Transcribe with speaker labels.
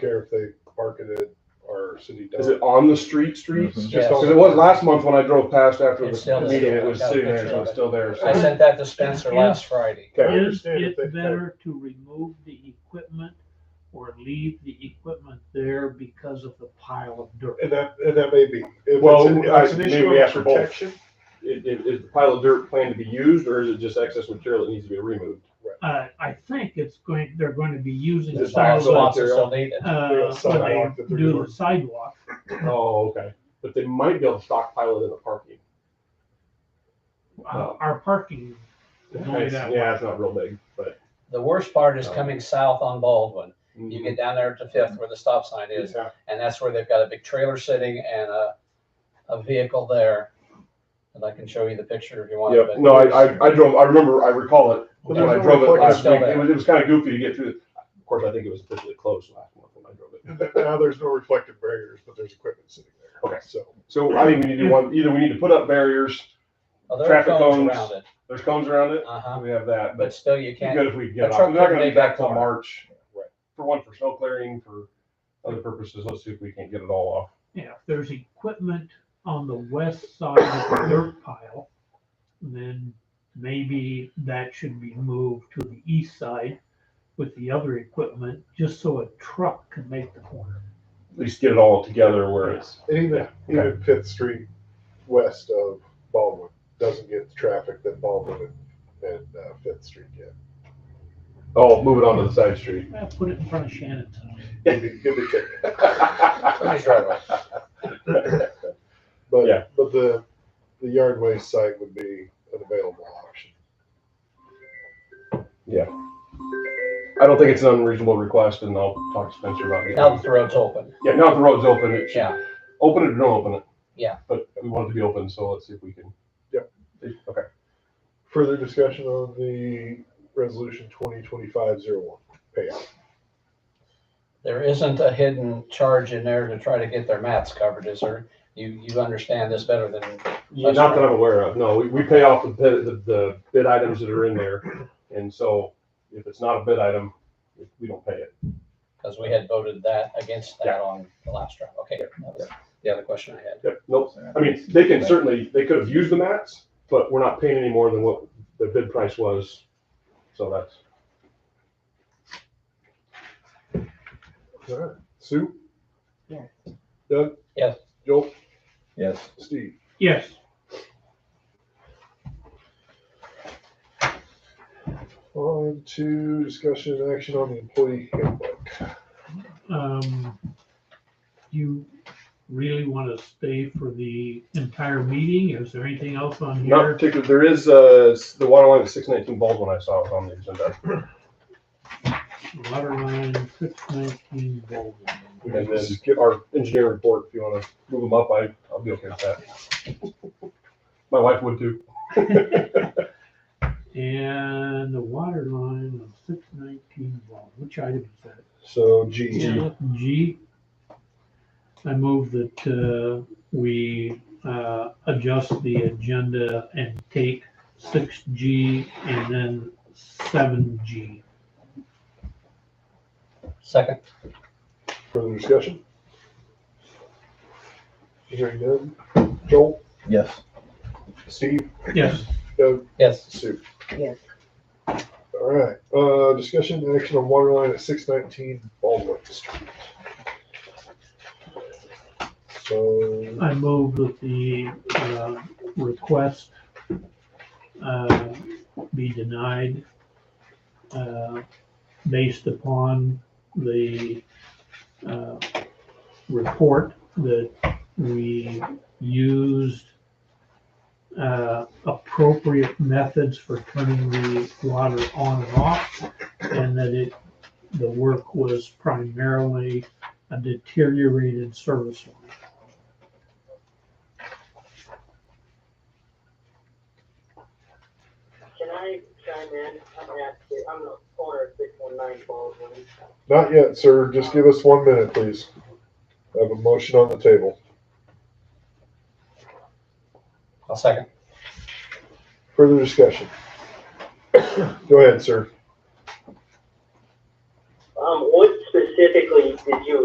Speaker 1: care if they park it at our city.
Speaker 2: Is it on the street streets?
Speaker 3: Mhm.
Speaker 1: Yes.
Speaker 2: Because it was last month when I drove past after
Speaker 3: It's
Speaker 2: the
Speaker 3: still
Speaker 2: meeting,
Speaker 3: there.
Speaker 2: it was
Speaker 3: Got a
Speaker 2: sitting there,
Speaker 3: picture
Speaker 2: so
Speaker 3: of
Speaker 2: it's
Speaker 3: it.
Speaker 2: still there.
Speaker 3: I sent that to Spencer last Friday.
Speaker 2: Okay.
Speaker 4: Is
Speaker 1: understand if they-
Speaker 4: it better to remove the equipment or leave the equipment there because of the pile of dirt?
Speaker 1: And that, and that may be. if it's
Speaker 2: Well,
Speaker 1: an- if
Speaker 2: I-
Speaker 1: it's an
Speaker 2: maybe
Speaker 1: issue
Speaker 2: we
Speaker 1: of
Speaker 2: ask for both.
Speaker 1: protection,
Speaker 2: Is, is- is the pile of dirt planned to be used, or is it just excess material that needs to be removed?
Speaker 4: Uh, I think it's going, they're going to be using the
Speaker 3: There's
Speaker 2: sidewalk.
Speaker 3: lots
Speaker 4: sidewalk,
Speaker 3: lots of still need it.
Speaker 4: uh, when
Speaker 1: Sidewalk that
Speaker 4: they
Speaker 1: they're
Speaker 4: do
Speaker 1: doing.
Speaker 4: the sidewalk.
Speaker 2: Oh, okay. But they might be able to stockpile it in the parking.
Speaker 1: Oh.
Speaker 4: Uh, Our parking, It's only
Speaker 2: It's-
Speaker 4: that
Speaker 2: Yeah, it's not real big, but.
Speaker 3: The worst part is coming south on Baldwin. You get down there to Fifth where the stop sign is,
Speaker 2: Yeah.
Speaker 3: and that's where they've got a big trailer sitting and a, a vehicle there. And I can show you the picture if you want.
Speaker 2: Yep,
Speaker 3: but-
Speaker 2: no, I, I, I drove, I remember, I recall it,
Speaker 1: But
Speaker 2: when
Speaker 1: there's
Speaker 2: I
Speaker 1: no
Speaker 2: drove it
Speaker 1: reporting
Speaker 2: last
Speaker 3: still
Speaker 2: week,
Speaker 3: there.
Speaker 2: it was, it was kinda goofy to get through. Of course, I think it was officially closed last month when I drove it.
Speaker 1: and that- now there's no reflective barriers, but there's equipment sitting there.
Speaker 2: Okay.
Speaker 1: So,
Speaker 2: So I think we need to do one, either we need to put up barriers,
Speaker 3: Oh, there are
Speaker 2: traffic
Speaker 3: cones
Speaker 2: cones.
Speaker 3: around it.
Speaker 2: there's cones around it,
Speaker 3: Uh-huh.
Speaker 2: we have that, but
Speaker 3: But still, you
Speaker 2: Be
Speaker 3: can't,
Speaker 2: good if we could get
Speaker 3: a
Speaker 2: off.
Speaker 3: truck
Speaker 2: We're not gonna
Speaker 3: couldn't
Speaker 2: be
Speaker 3: make
Speaker 2: back
Speaker 3: that
Speaker 2: till
Speaker 3: far.
Speaker 2: March.
Speaker 1: Right.
Speaker 2: For one, for snow clearing, for other purposes, let's see if we can get it all off.
Speaker 4: yeah, if there's equipment on the west side of the dirt pile, then maybe that should be moved to the east side with the other equipment, just so a truck can make the corner.
Speaker 2: At least get it all together where it's,
Speaker 1: and even,
Speaker 2: Yeah, okay.
Speaker 1: even Fifth Street west of Baldwin doesn't get the traffic that Baldwin and, and uh, Fifth Street get.
Speaker 2: oh, move it on to the side street.
Speaker 4: Yeah, Put it in front of Shannon's house.
Speaker 1: Give me- give me a kick.
Speaker 3: somebody's driveway.
Speaker 1: But,
Speaker 2: Yeah.
Speaker 1: but the, the yard waste site would be an available option.
Speaker 2: I don't think it's an unreasonable request and I'll talk to Spencer about it.
Speaker 3: now that the road's open.
Speaker 2: Yeah, now that the road's open, it should,
Speaker 3: Yeah,
Speaker 2: open it or don't open it.
Speaker 3: Yeah.
Speaker 2: But we want it to be open, so let's see if we can.
Speaker 1: Yep.
Speaker 2: Okay.
Speaker 1: Further discussion on the resolution twenty twenty-five zero one payout.
Speaker 3: there isn't a hidden charge in there to try to get their mats covered, is there? You, you understand this better than
Speaker 2: Yeah, Not that I'm aware of, no, we, we pay off the bid, the, the bid items that are in there. And so if it's not a bid item, we don't pay it.
Speaker 3: Because we had voted that against that on the last round. Okay, that was the other question I had.
Speaker 2: Yep, nope. I mean, they can certainly, they could have used the mats, but we're not paying any more than what the bid price was. So that's,
Speaker 1: All right, Sue?
Speaker 4: Yeah.
Speaker 1: Doug?
Speaker 3: Yes.
Speaker 1: Joel?
Speaker 3: Yes.
Speaker 1: Steve?
Speaker 4: Yes,
Speaker 1: On to discussion and action on the employee handbook.
Speaker 4: um, you really want to stay for the entire meeting? Is there anything else on
Speaker 2: not
Speaker 4: here?
Speaker 2: particular, there is, uh, the water line at six nineteen Baldwin I saw was on the agenda.
Speaker 4: Water line six nineteen Baldwin.
Speaker 1: We
Speaker 2: And
Speaker 1: can
Speaker 2: then
Speaker 1: skip
Speaker 2: get our engineer report, if you wanna move them up, I, I'll be okay with that. My wife would too.
Speaker 4: And the water line of six nineteen Baldwin, which item is that?
Speaker 1: So G,
Speaker 4: G. I move that uh, we uh, adjust the agenda and take six G and then seven G.
Speaker 3: Second,
Speaker 1: further discussion? Hearing none. Joel?
Speaker 5: Yes.
Speaker 1: Steve?
Speaker 4: Yes,
Speaker 1: Doug?
Speaker 3: yes,
Speaker 1: Sue?
Speaker 6: Yes.
Speaker 1: All right, uh, discussion and action on water line at six nineteen Baldwin Street. So.
Speaker 4: I move that the uh, request uh, be denied uh, based upon the uh, report that we used uh, appropriate methods for turning the water on and off, and that it, the work was primarily a deteriorated service line.
Speaker 6: Can I chime in? I'm at, I'm the owner of six one nine Baldwin.
Speaker 1: Not yet, sir. Just give us one minute, please. I have a motion on the table.
Speaker 3: I'll second.
Speaker 1: Further discussion? Go ahead, sir.
Speaker 6: Um, what's the specifically did you